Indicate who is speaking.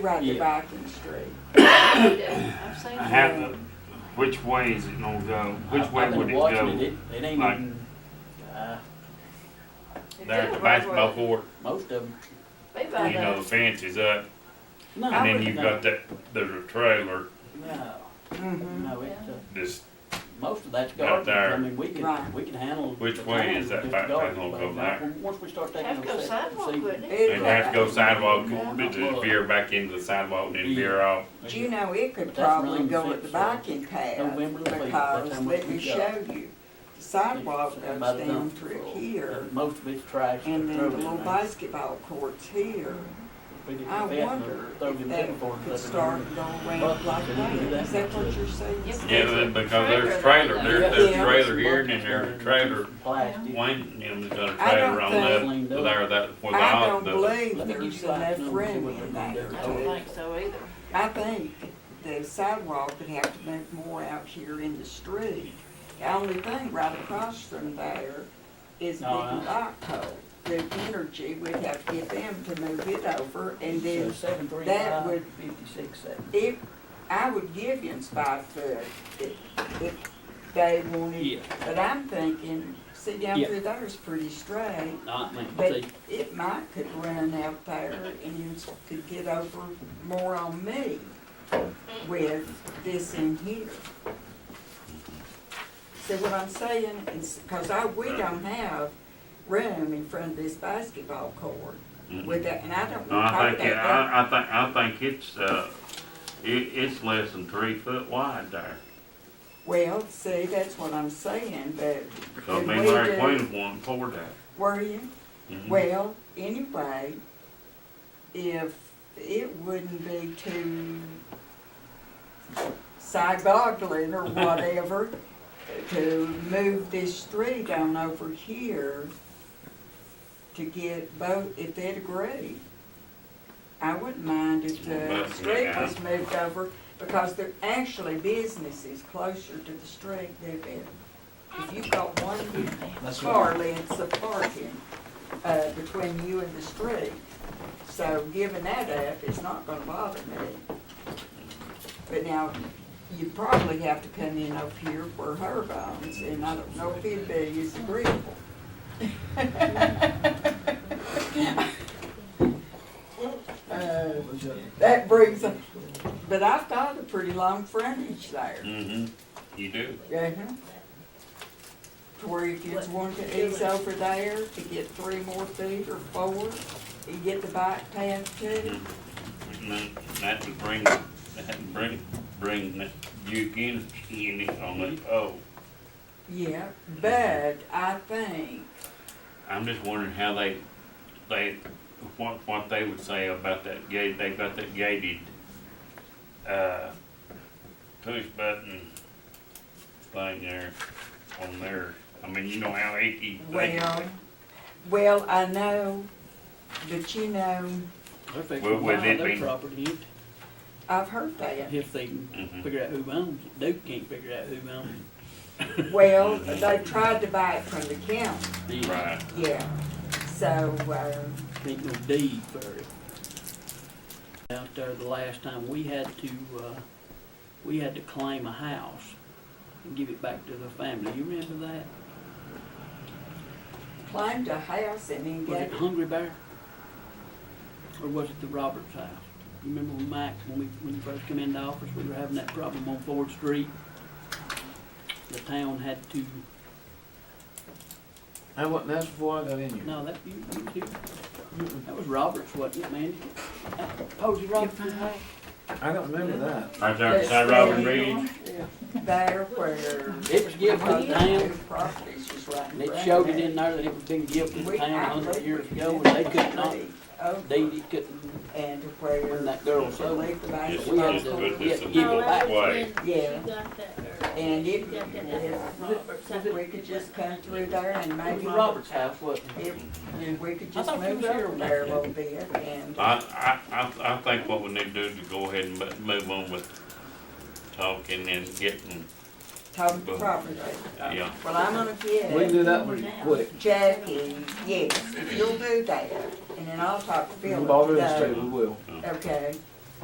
Speaker 1: Right to
Speaker 2: Yeah.
Speaker 1: Viking Street.
Speaker 3: I'm saying.
Speaker 4: I have the, which way is it gonna go? Which
Speaker 2: I've-
Speaker 4: way
Speaker 2: I've been
Speaker 4: would it
Speaker 2: watching
Speaker 4: go?
Speaker 2: It It ain't
Speaker 4: Like-
Speaker 2: even, uh,
Speaker 5: There at the basketball court,
Speaker 2: most of them.
Speaker 3: Be by
Speaker 5: you know, the
Speaker 3: that.
Speaker 5: fence is up,
Speaker 2: No,
Speaker 5: and
Speaker 2: I
Speaker 5: then
Speaker 2: wouldn't
Speaker 5: you've
Speaker 2: know.
Speaker 5: got that, there's a trailer
Speaker 2: No,
Speaker 1: Mm-hmm.
Speaker 2: no, it, uh,
Speaker 5: just,
Speaker 2: most of that's
Speaker 5: Out
Speaker 2: garbage.
Speaker 5: there.
Speaker 2: I mean, we can,
Speaker 1: Right.
Speaker 2: we can handle.
Speaker 5: Which
Speaker 2: the
Speaker 5: way
Speaker 2: town
Speaker 5: is that
Speaker 2: with
Speaker 5: back
Speaker 2: the garbage,
Speaker 5: panel
Speaker 2: but
Speaker 5: go
Speaker 2: now,
Speaker 5: back?
Speaker 2: Once we start taking.
Speaker 3: Have to go
Speaker 2: those sections,
Speaker 3: sidewalk,
Speaker 2: see,
Speaker 3: wouldn't it?
Speaker 5: and have to go sidewalk, and just
Speaker 2: Yeah.
Speaker 5: veer back into the sidewalk, and then veer off.
Speaker 1: Do you know, it could
Speaker 2: But that's
Speaker 1: probably
Speaker 2: around
Speaker 1: go
Speaker 2: the
Speaker 1: at the
Speaker 2: fence, uh,
Speaker 1: biking path,
Speaker 2: November the fifth,
Speaker 1: because
Speaker 2: that's how much
Speaker 1: let me
Speaker 2: we got.
Speaker 1: show you. The sidewalk
Speaker 2: About
Speaker 1: goes
Speaker 2: the
Speaker 1: down
Speaker 2: dump
Speaker 1: through
Speaker 2: floor.
Speaker 1: here,
Speaker 2: And Most of it's trash.
Speaker 1: and then
Speaker 2: throw
Speaker 1: the
Speaker 2: it in
Speaker 1: little
Speaker 2: there.
Speaker 1: basketball court's here.
Speaker 2: We get the
Speaker 1: I
Speaker 2: fence and
Speaker 1: wonder
Speaker 2: throw
Speaker 1: if
Speaker 2: them
Speaker 1: that
Speaker 2: tinfoil
Speaker 1: could
Speaker 2: stuff in there.
Speaker 1: start going around like that, is that what you're saying?
Speaker 3: Yep.
Speaker 5: Yeah, then because there's trailer, there, there's
Speaker 1: Yeah.
Speaker 5: a trailer here, and then there's a trailer,
Speaker 2: Plastic.
Speaker 5: Wayne, you know, there's a
Speaker 1: I don't
Speaker 5: trailer on that,
Speaker 2: think-
Speaker 5: there, that, where the
Speaker 1: I don't
Speaker 5: house does.
Speaker 1: believe there's enough room in there
Speaker 3: I don't
Speaker 1: to,
Speaker 3: think so either.
Speaker 1: I think the sidewalk would have to move more out here in the street. The only thing right across from there is big
Speaker 2: No, Oh, I-
Speaker 1: rock hole. The energy, we'd have to get them to move it over and then
Speaker 2: seven, three,
Speaker 1: that would-
Speaker 2: fifty-six, seven.
Speaker 1: If, I would give him five foot if, if they wanted,
Speaker 2: Yeah,
Speaker 1: but I'm thinking, see down
Speaker 2: Yeah.
Speaker 1: through there is pretty straight.
Speaker 2: not me,
Speaker 1: But
Speaker 2: see,
Speaker 1: it might could run out there and you could get over more on me with this in here. See what I'm saying? It's, cause I, we don't have room in front of this basketball court with that, and I don't
Speaker 4: No,
Speaker 1: wanna
Speaker 4: I
Speaker 1: talk
Speaker 4: think, it-
Speaker 1: that.
Speaker 4: I, I think, I think it's, uh, it, it's less than three foot wide there.
Speaker 1: Well, see, that's what I'm saying, but
Speaker 4: So me
Speaker 1: Could
Speaker 4: and
Speaker 1: we
Speaker 4: Larry
Speaker 1: do-
Speaker 4: Queen want for that.
Speaker 1: were you?
Speaker 5: Mm-hmm.
Speaker 4: Mhm.
Speaker 1: Well, anyway, if it wouldn't be too side-boggling or whatever to move this street on over here to get both, if they'd agree. I wouldn't mind if the
Speaker 4: Both,
Speaker 1: street
Speaker 4: yeah.
Speaker 1: was moved over because there actually businesses closer to the street than there. If you've got one here
Speaker 2: that's what,
Speaker 1: car lengths of parking, uh, between you and the street. So giving that up is not gonna bother me. But now, you probably have to come in up here for her bones, and I don't know if it'd be as agreeable. Uh, That brings, up- but I've got a pretty long frontage there.
Speaker 4: Mhm.
Speaker 5: Mm-hmm.
Speaker 4: you do.
Speaker 1: Uh-huh. To where if you want to ease over there to get three more feet or four, you get the bike path too.
Speaker 4: And then That would bring, that would bring, bring that Duke energy in it on the, oh.
Speaker 1: Yeah, but I think,
Speaker 4: I'm just wondering how they, they, what, what they would say about that gate, they've got that gated, uh, push button thing there, on there. I mean, you know how icky they,
Speaker 1: well, well, I know, but you know,
Speaker 2: they're
Speaker 4: Well,
Speaker 2: fixing to
Speaker 4: would
Speaker 2: buy
Speaker 4: it
Speaker 2: their
Speaker 4: be-
Speaker 2: property if-
Speaker 1: I've heard that.
Speaker 2: if they can
Speaker 4: Mhm.
Speaker 2: figure out who owns it, Duke can't figure out who owns it.
Speaker 1: Well, they tried to buy it from the county,
Speaker 2: They
Speaker 4: right,
Speaker 1: yeah. So, um,
Speaker 2: Ain't no deed for it. Out there the last time, we had to, uh, we had to claim a house and give it back to the family, you remember that?
Speaker 1: climbed a house and then
Speaker 2: Was it
Speaker 1: got,
Speaker 2: Hungry Bear? Or was it the Roberts house? You Remember when Mike, when we, when you first come into office, we were having that problem on Ford Street? The town had to,
Speaker 6: I wasn't, that's before I got in here.
Speaker 2: no, that, you, you too. That was Roberts, wasn't it, Mandy? Oh, That Posey Roberts house?
Speaker 6: I don't remember that.
Speaker 4: right there beside Robin Reed.
Speaker 1: there where.
Speaker 2: It was given to the town,
Speaker 1: Properties was right.
Speaker 2: and it showed it in there that it was been given to the town a hundred years ago, and they could not, they couldn't,
Speaker 1: And where.
Speaker 2: when that girl sold it.
Speaker 4: Just,
Speaker 2: We had
Speaker 4: just
Speaker 2: to-
Speaker 4: put
Speaker 2: we had
Speaker 4: this
Speaker 2: to
Speaker 4: in
Speaker 2: give
Speaker 4: the
Speaker 2: it back.
Speaker 4: way.
Speaker 1: Yeah.
Speaker 3: She got that, or
Speaker 1: And
Speaker 3: she
Speaker 1: it,
Speaker 3: got that
Speaker 1: if,
Speaker 3: at
Speaker 1: we could just come through there and
Speaker 2: It was
Speaker 1: maybe.
Speaker 2: Roberts house, wasn't it?
Speaker 1: If, if we could
Speaker 2: I
Speaker 1: just
Speaker 2: thought you
Speaker 1: move
Speaker 2: was here
Speaker 1: over
Speaker 2: when
Speaker 1: there a
Speaker 2: I-
Speaker 1: little bit and,
Speaker 4: I, I, I, I think what we need to do is go ahead and mo- move on with talking and getting,
Speaker 1: talk to property.
Speaker 4: yeah.
Speaker 1: Well, I'm gonna
Speaker 6: We can
Speaker 1: get
Speaker 6: do that pretty quick.
Speaker 1: Jackie, yes, if you'll do that, and then I'll talk to Philip
Speaker 6: Ball River
Speaker 1: today.
Speaker 6: State, we will.
Speaker 1: Okay,